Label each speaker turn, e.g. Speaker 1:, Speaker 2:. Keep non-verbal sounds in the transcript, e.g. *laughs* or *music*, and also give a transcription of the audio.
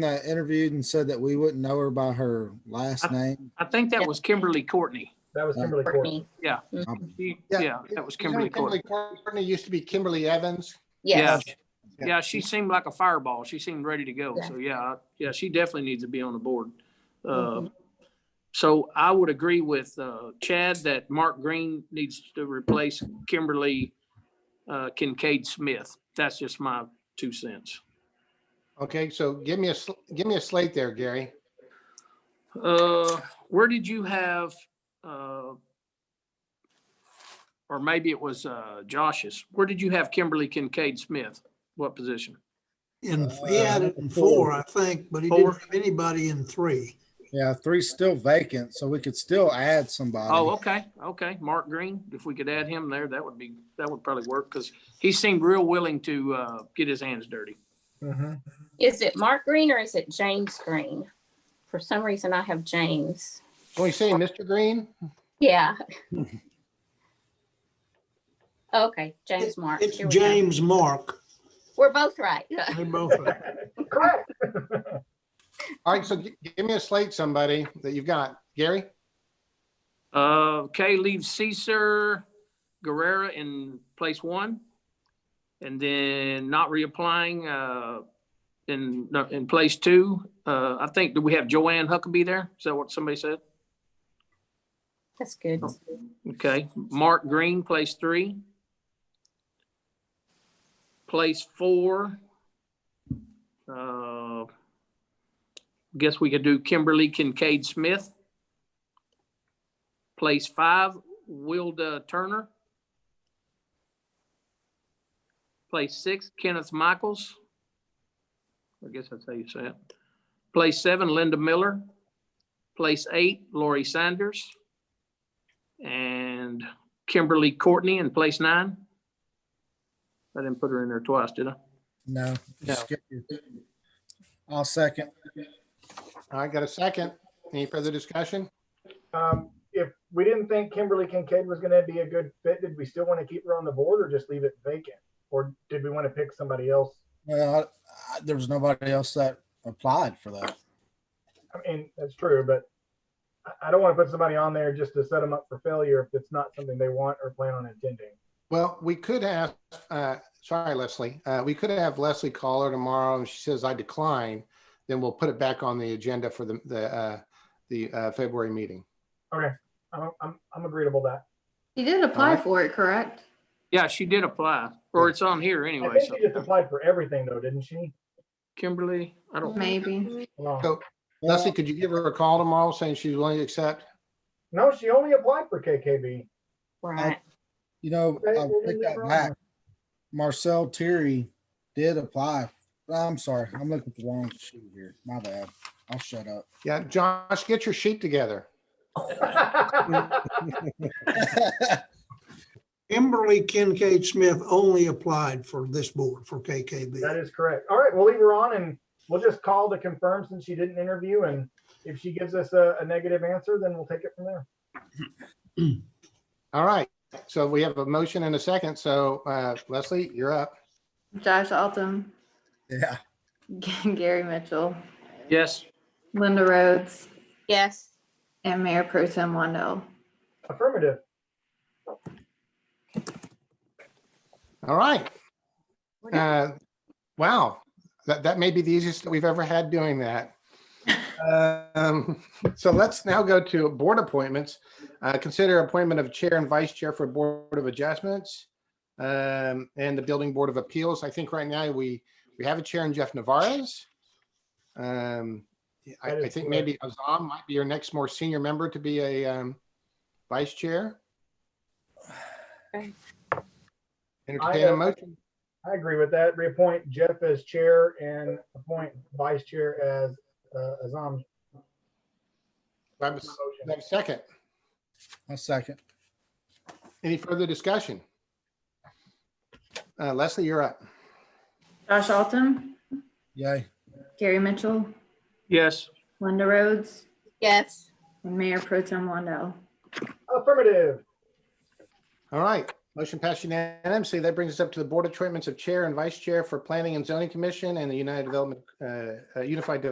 Speaker 1: that interviewed and said that we wouldn't know her by her last name?
Speaker 2: I think that was Kimberly Courtney.
Speaker 3: That was
Speaker 1: Yeah.
Speaker 3: Kimberly Courtney.
Speaker 4: Courtney.
Speaker 2: She-
Speaker 5: Yeah.
Speaker 2: Yeah, that was
Speaker 5: Isn't it
Speaker 2: Kimberly Courtney.
Speaker 5: Courtney used to be Kimberly Evans.
Speaker 2: Yeah,
Speaker 4: Yes,
Speaker 2: yeah, she seemed like a fireball. She seemed ready to go. So yeah, I- yeah, she definitely needs to be on the board. Uh, So I would agree with uh, Chad that Mark Green needs to replace Kimberly uh, Kincaid Smith. That's just my two cents.
Speaker 5: Okay, so give me a, sl- give me a slate there, Gary.
Speaker 2: Uh, where did you have, uh, or maybe it was, uh, Josh's, where did you have Kimberly Kincaid Smith? What position?
Speaker 6: In, he had it in four, I think, but he
Speaker 2: Four.
Speaker 6: didn't have anybody in three.
Speaker 1: Yeah, three's still vacant, so we could still add somebody.
Speaker 2: Oh, okay, okay, Mark Green, if we could add him there, that would be, that would probably work, because he seemed real willing to, uh, get his hands dirty.
Speaker 3: Mhm.
Speaker 4: is it Mark Green or is it James Green? For some reason, I have James.
Speaker 5: Can we say Mr. Green?
Speaker 4: Yeah. Okay, James Mark.
Speaker 6: It's
Speaker 4: here we go.
Speaker 6: James Mark.
Speaker 4: We're both right.
Speaker 6: They both are.
Speaker 3: Correct.
Speaker 5: All right, so gi- give me a slate, somebody that you've got. Gary?
Speaker 2: Uh, okay, leave Caesar Guerrera in place one. And then not reapplying, uh, in, no, in place two. Uh, I think, do we have Joanne Huckabee there? Is that what somebody said?
Speaker 4: That's good.
Speaker 6: Oh.
Speaker 2: Okay, Mark Green, place three. Place four. Uh, Guess we could do Kimberly Kincaid Smith. Place five, Wilda Turner. Place six, Kenneth Michaels. I guess that's how you say it. Place seven, Linda Miller. Place eight, Lori Sanders. And Kimberly Courtney in place nine. I didn't put her in there twice, did I?
Speaker 1: No. just skip it. I'll second.
Speaker 5: All right, got a second. Any further discussion?
Speaker 3: Um, If we didn't think Kimberly Kincaid was going to be a good fit, did we still want to keep her on the board or just leave it vacant? Or did we want to pick somebody else?
Speaker 1: Well, I- I- there was nobody else that applied for that.
Speaker 3: I mean, that's true, but I- I don't want to put somebody on there just to set them up for failure if it's not something they want or plan on attending.
Speaker 5: Well, we could ask, uh, sorry, Leslie, uh, we could have Leslie call her tomorrow. and She says I decline, then we'll put it back on the agenda for the, the, uh, the, uh, February meeting.
Speaker 3: I'm, I'm, I'm agreeable to that.
Speaker 7: You did apply
Speaker 5: Alright.
Speaker 7: for it, correct?
Speaker 2: Yeah, she did apply, or it's on here
Speaker 3: I
Speaker 2: anyway.
Speaker 3: think
Speaker 2: So
Speaker 3: she just applied for everything though, didn't she?
Speaker 2: Kimberly, I don't,
Speaker 7: Maybe.
Speaker 3: Hold on.
Speaker 5: So Leslie, could you give her a call tomorrow saying she's willing to accept?
Speaker 3: No, she only applied for KKB.
Speaker 4: Right.
Speaker 1: You know,
Speaker 3: Right,
Speaker 1: I'll
Speaker 3: well,
Speaker 1: take
Speaker 3: we
Speaker 1: that
Speaker 3: were on.
Speaker 1: back. Marcel Terry did apply. I'm sorry, I'm looking at the wrong sheet here. My bad. I'll shut up.
Speaker 5: Yeah, Josh, get your sheet together.
Speaker 6: Kimberly Kincaid Smith only applied for this board, for KKB.
Speaker 3: That is correct. All right, we'll leave her on and we'll just call to confirm since she didn't interview. And if she gives us a, a negative answer, then we'll take it from there.
Speaker 5: All right, so we have a motion and a second, so uh, Leslie, you're up.
Speaker 7: Josh Altum, *laughs*
Speaker 1: Yeah.
Speaker 7: Gary Mitchell,
Speaker 2: yes,
Speaker 7: Linda Rhodes,
Speaker 4: Yes.
Speaker 7: and Mayor Pro Tem Wendell.
Speaker 3: Affirmative.
Speaker 5: All right. Uh, Wow, that, that may be the easiest that we've ever had doing that. Um, So let's now go to board appointments. Uh, Consider appointment of Chair and Vice Chair for Board of Adjustments um, and the Building Board of Appeals. I think right now we, we have a Chair in Jeff Navarez. Um, I,
Speaker 3: That
Speaker 5: I
Speaker 3: is
Speaker 5: think
Speaker 3: correct.
Speaker 5: maybe Azam might be your next more senior member to be a um, Vice Chair.
Speaker 4: Okay.
Speaker 5: Entertain
Speaker 3: I,
Speaker 5: a
Speaker 3: uh,
Speaker 5: motion.
Speaker 3: I agree with that. Reappoint Jeff as chair and appoint vice chair as, uh, Azam.
Speaker 5: Do I have a s- do I have a Second.
Speaker 1: I'll second.
Speaker 5: Any further discussion? Uh, Leslie, you're up.
Speaker 7: Josh Altum,
Speaker 1: Yay.
Speaker 7: Gary Mitchell,
Speaker 2: yes.
Speaker 7: Linda Rhodes,
Speaker 4: Yes.
Speaker 7: and Mayor Pro Tem Wendell.
Speaker 3: Affirmative.
Speaker 5: All right, motion passed unanimously. That brings us up to the board appointments of chair and vice chair for Planning and Zoning Commission and the United Development, uh, uh, Unified Development